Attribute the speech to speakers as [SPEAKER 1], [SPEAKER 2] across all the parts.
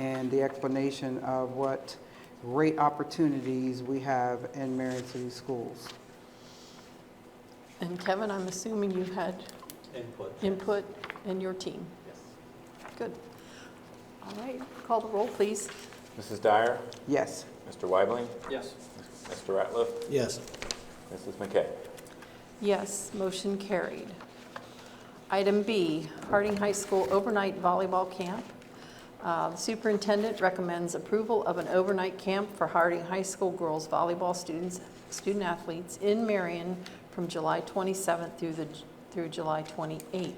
[SPEAKER 1] and the explanation of what great opportunities we have in Marion City Schools.
[SPEAKER 2] And Kevin, I'm assuming you had
[SPEAKER 3] Input.
[SPEAKER 2] input in your team.
[SPEAKER 3] Yes.
[SPEAKER 2] Good. All right, call the roll, please.
[SPEAKER 4] Mrs. Dyer,
[SPEAKER 1] Yes,
[SPEAKER 4] Mr. Weibling,
[SPEAKER 3] Yes.
[SPEAKER 4] Mr. Ratliff,
[SPEAKER 5] Yes.
[SPEAKER 4] Mrs. McKay.
[SPEAKER 2] Yes, motion carried. Item B, Harding High School Overnight Volleyball Camp. Uh, The Superintendent recommends approval of an overnight camp for Harding High School girls volleyball students, student athletes in Marion from July 27th through the, through July 28th. Do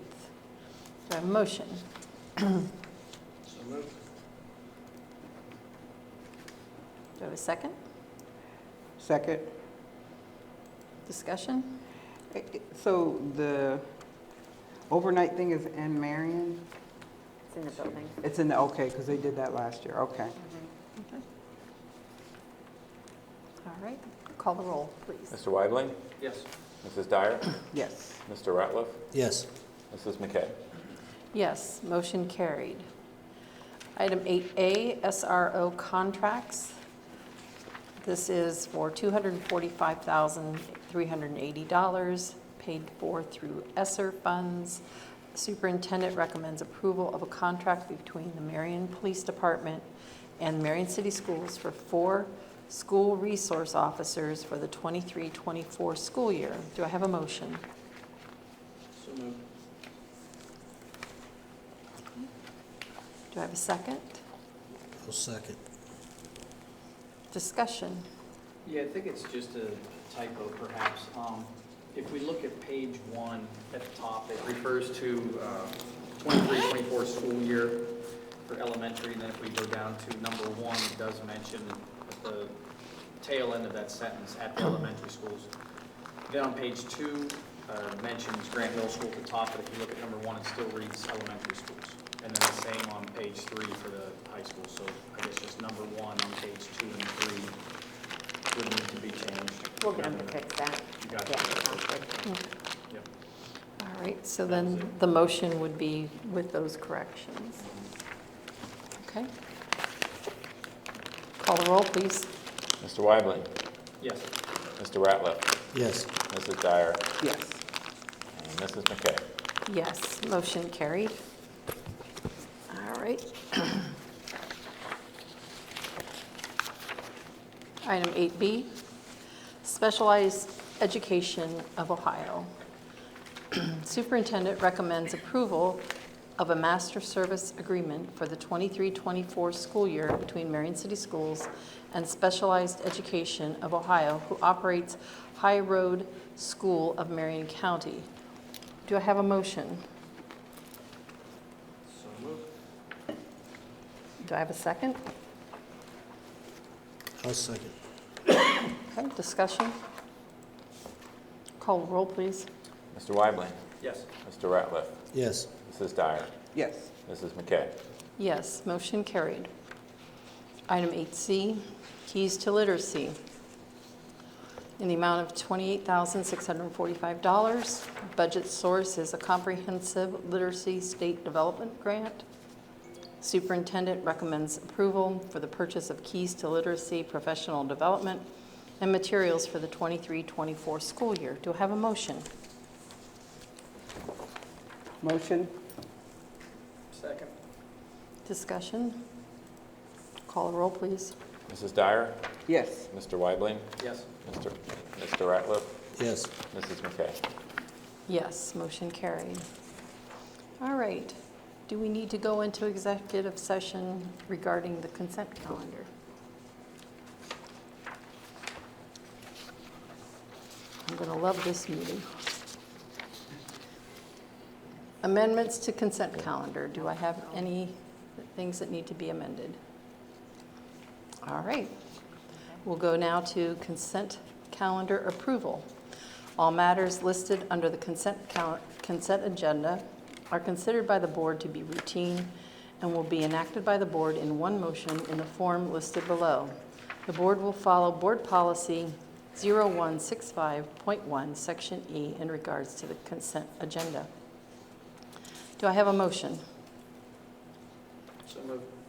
[SPEAKER 2] I have a motion?
[SPEAKER 5] So moved.
[SPEAKER 2] Do I have a second?
[SPEAKER 1] second.
[SPEAKER 2] Discussion?
[SPEAKER 1] Eh, So the overnight thing is in Marion?
[SPEAKER 6] It's in the building.
[SPEAKER 1] It's in the, okay, because they did that last year, okay.
[SPEAKER 2] All right, call the roll, please.
[SPEAKER 4] Mr. Weibling,
[SPEAKER 3] Yes.
[SPEAKER 4] Mrs. Dyer,
[SPEAKER 1] Yes,
[SPEAKER 4] Mr. Ratliff,
[SPEAKER 5] Yes.
[SPEAKER 4] Mrs. McKay.
[SPEAKER 2] Yes, motion carried. Item 8A, SRO contracts. This is for $245,380, paid for through E ESSER funds. Superintendent recommends approval of a contract between the Marion Police Department and Marion City Schools for four school resource officers for the 23-24 school year. Do I have a motion?
[SPEAKER 3] So moved.
[SPEAKER 2] Do I have a second?
[SPEAKER 5] I'll second.
[SPEAKER 2] Discussion?
[SPEAKER 3] Yeah, I think it's just a typo perhaps. Um, If we look at page one at the top, it refers to uh, 23, 24 school year for elementary, and then if we go down to number one, it does mention at the tail end of that sentence, at the elementary schools. Then on page two, uh, mentions Grant Middle School at the top, but if you look at number one, it still reads elementary schools. And then the same on page three for the high school, so I guess just number one on page two and three would need to be changed.
[SPEAKER 6] We'll get them to fix that.
[SPEAKER 3] You got it.
[SPEAKER 6] Yeah, sounds good.
[SPEAKER 3] Yep.
[SPEAKER 2] All right, so then the motion would be with those corrections. Okay? Call the roll, please.
[SPEAKER 4] Mr. Weibling,
[SPEAKER 3] Yes,
[SPEAKER 4] Mr. Ratliff,
[SPEAKER 5] Yes.
[SPEAKER 4] Mrs. Dyer,
[SPEAKER 1] yes.
[SPEAKER 4] and Mrs. McKay.
[SPEAKER 2] Yes, motion carried. All right. Item 8B, Specialized Education of Ohio. Superintendent recommends approval of a master service agreement for the 23-24 school year between Marion City Schools and Specialized Education of Ohio, who operates High Road School of Marion County. Do I have a motion?
[SPEAKER 3] so moved.
[SPEAKER 2] Do I have a second?
[SPEAKER 5] I'll second.
[SPEAKER 2] Okay, discussion? Call roll, please.
[SPEAKER 4] Mr. Weibling,
[SPEAKER 3] Yes,
[SPEAKER 4] Mr. Ratliff,
[SPEAKER 5] Yes.
[SPEAKER 4] Mrs. Dyer,
[SPEAKER 1] Yes,
[SPEAKER 4] Mrs. McKay.
[SPEAKER 2] Yes, motion carried. Item 8C, Keys to Literacy, in the amount of $28,645. Budget source is a comprehensive literacy state development grant. Superintendent recommends approval for the purchase of Keys to Literacy professional development and materials for the 23-24 school year. Do I have a motion?
[SPEAKER 1] motion?
[SPEAKER 3] second.
[SPEAKER 2] Discussion? Call a roll, please.
[SPEAKER 4] Mrs. Dyer,
[SPEAKER 1] Yes,
[SPEAKER 4] Mr. Weibling,
[SPEAKER 3] Yes,
[SPEAKER 4] Mr. Mr. Ratliff,
[SPEAKER 5] Yes.
[SPEAKER 4] Mrs. McKay.
[SPEAKER 2] Yes, motion carried. All right. Do we need to go into executive session regarding the consent calendar? I'm going to love this meeting. Amendments to consent calendar. Do I have any things that need to be amended? All right. We'll go now to consent calendar approval. All matters listed under the consent cal- consent agenda are considered by the board to be routine and will be enacted by the board in one motion in the form listed below. The board will follow Board Policy 0165.1, Section E, in regards to the consent agenda. Do I have a motion?
[SPEAKER 3] so moved.